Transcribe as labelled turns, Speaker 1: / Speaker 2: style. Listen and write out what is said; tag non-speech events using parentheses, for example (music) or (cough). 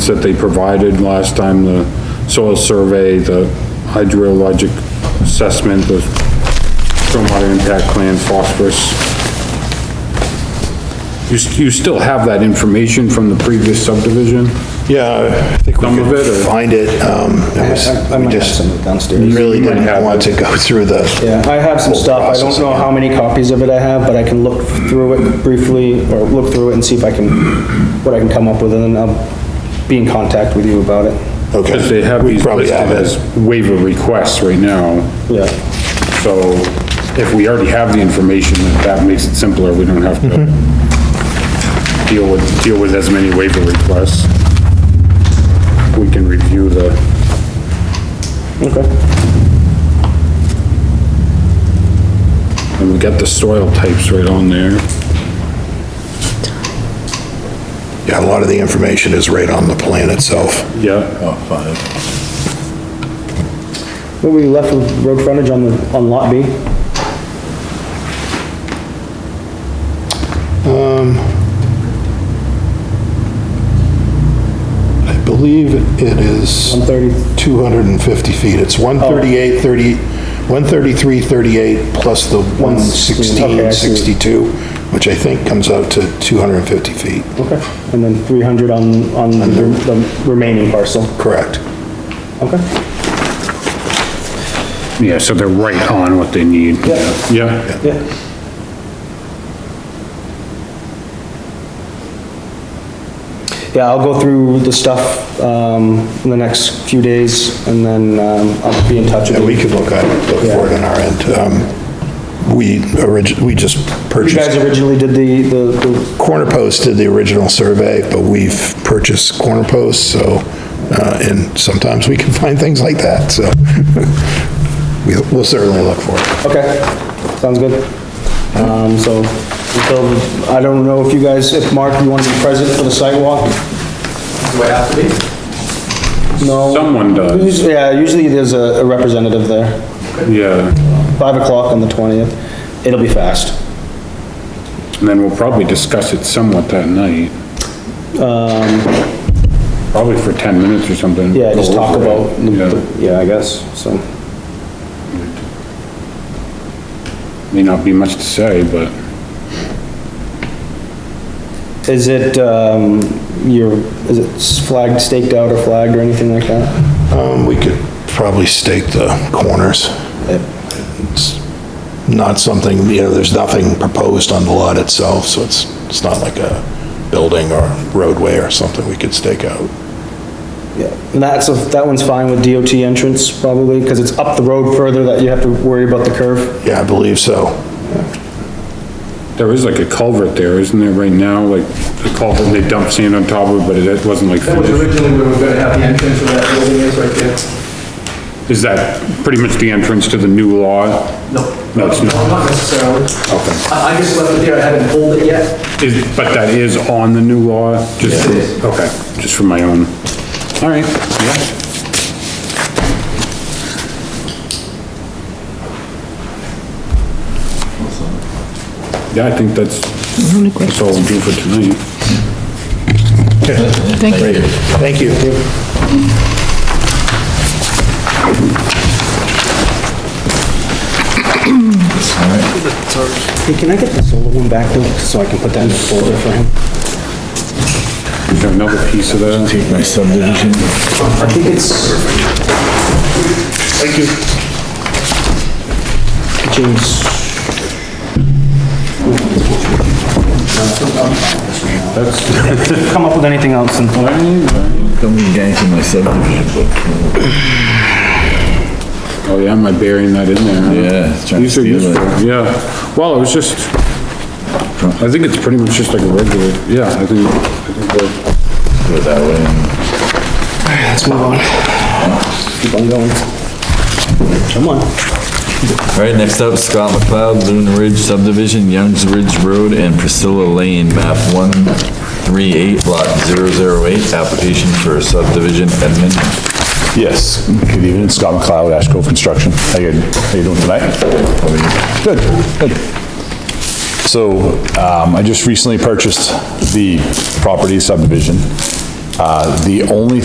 Speaker 1: that they provided last time, the soil survey, the hydrologic assessment, the stormwater impact plan, phosphorus. You, s- you still have that information from the previous subdivision?
Speaker 2: Yeah, I think we
Speaker 1: Some of it,
Speaker 2: could
Speaker 1: or-
Speaker 2: find it, um, it was,
Speaker 3: I I
Speaker 2: we
Speaker 3: might have
Speaker 2: just
Speaker 3: some downstairs.
Speaker 2: really
Speaker 1: You might have
Speaker 2: didn't want to go through the.
Speaker 3: Yeah, I have some
Speaker 2: whole
Speaker 3: stuff, I
Speaker 2: process
Speaker 3: don't know
Speaker 2: again.
Speaker 3: how many copies of it I have, but I can look through it briefly, or look through it and see if I can, what I can come up with, and then I'll be in contact with you about it.
Speaker 2: Okay.
Speaker 1: Because they have
Speaker 2: We
Speaker 1: these
Speaker 2: probably
Speaker 1: listed
Speaker 2: have it.
Speaker 1: as waiver requests right now,
Speaker 3: Yeah.
Speaker 1: so if we already have the information, that that makes it simpler, we don't have to
Speaker 2: Mm-hmm.
Speaker 1: deal with, deal with as many waiver requests. We can review the,
Speaker 3: Okay.
Speaker 1: and we got the soil types right on there.
Speaker 2: Yeah, a lot of the information is right on the plan itself.
Speaker 1: Yeah,
Speaker 2: Oh, fine.
Speaker 3: What we left with road frontage on the, on lot B?
Speaker 2: Um, I believe it is
Speaker 3: One thirty,
Speaker 2: 250 feet. It's
Speaker 1: Oh.
Speaker 2: 138, 30, 133, 38 plus the
Speaker 3: 116, okay, I
Speaker 2: 116,
Speaker 3: see.
Speaker 2: 62, which I think comes out to 250 feet.
Speaker 3: okay. And then three hundred on, on the the remaining parcel.
Speaker 2: Correct.
Speaker 3: Okay.
Speaker 1: yeah, so they're right on what they need.
Speaker 3: Yeah.
Speaker 1: Yeah,
Speaker 3: Yeah. Yeah, I'll go through the stuff, um, in the next few days, and then, um, I'll be in touch
Speaker 2: Yeah,
Speaker 3: with you.
Speaker 2: we could look at, it, look for it on our end. Um, We orig, we just
Speaker 3: You guys
Speaker 2: purchased,
Speaker 3: originally did the, the- the,
Speaker 2: Corner Post did the original survey, but we've purchased Corner Post, so, uh, and sometimes we can (laughs) find things like that, so (laughs) we- we'll certainly look for it.
Speaker 3: okay, sounds good. Um, so, until, I don't know if you guys, if Mark, you want to be present for the sidewalk?
Speaker 4: Do I have to be?
Speaker 3: No?
Speaker 1: someone does,
Speaker 3: Usually- Yeah, usually there's a a representative there.
Speaker 1: yeah,
Speaker 3: Five o'clock on the twentieth. It'll be fast.
Speaker 1: and then we'll probably discuss it somewhat that night. Um, Probably for ten minutes or something.
Speaker 3: Yeah, just talk about, the-
Speaker 1: Oh, Yeah.
Speaker 3: the- yeah, I guess, so.
Speaker 1: May not be much to say, but
Speaker 3: Is it, um, your, is it flagged, staked out or flagged or anything like that?
Speaker 2: Um, We could probably stake the corners. It's Not something, you know, there's nothing proposed on the lot itself, so it's, it's not like a building or roadway or something we could stake out.
Speaker 3: Yeah, and that's, a- that one's fine with DOT entrance probably, because it's up the road further that you have to worry about the curve.
Speaker 2: Yeah, I believe so.
Speaker 1: there is like a culvert there, isn't there, right now? Like, the culvert, they dumped sand on top of it, but it wasn't like
Speaker 4: That was
Speaker 1: finished.
Speaker 4: originally where we were gonna have the entrance of that building is right there.
Speaker 1: Is that pretty much the entrance to the new law?
Speaker 4: No.
Speaker 1: No, it's not.
Speaker 4: Not necessarily.
Speaker 1: Okay.
Speaker 4: I, I just left it there, I haven't pulled it yet.
Speaker 1: Is, but that is on the new law?
Speaker 4: Yes,
Speaker 1: Just-
Speaker 4: it is.
Speaker 1: Okay, just for my own. All right, yeah. Yeah, I think that's, that's all we'll do for tonight.
Speaker 2: Great, thank you.
Speaker 3: Hey, can I get the solar one back though, so I can put that in the folder for him?
Speaker 1: Is there another piece of that?
Speaker 5: My subdivision.
Speaker 3: I think it's. Thank you. James. Come up with anything else and.
Speaker 5: Don't be gangster my subdivision book.
Speaker 1: Oh, yeah, am I burying that in there?
Speaker 5: Yeah, it's trying to
Speaker 1: These are
Speaker 5: steal
Speaker 1: useful,
Speaker 5: it.
Speaker 1: yeah. Well, it was just, I think it's pretty much just like a regular, yeah, I think, I think we're-
Speaker 5: Go that way. and-
Speaker 3: Let's move on. Keep on going. Come on.
Speaker 5: All right, next up, Scott McLeod, Loon Ridge subdivision, Youngs Ridge Road and Priscilla Lane, map 138, lot 008, application for subdivision amendment.
Speaker 6: Yes, good evening, Scott McLeod, Ash Grove Construction. How you, how you doing tonight? Good, good. So, um, I just recently purchased the property subdivision. Uh, The only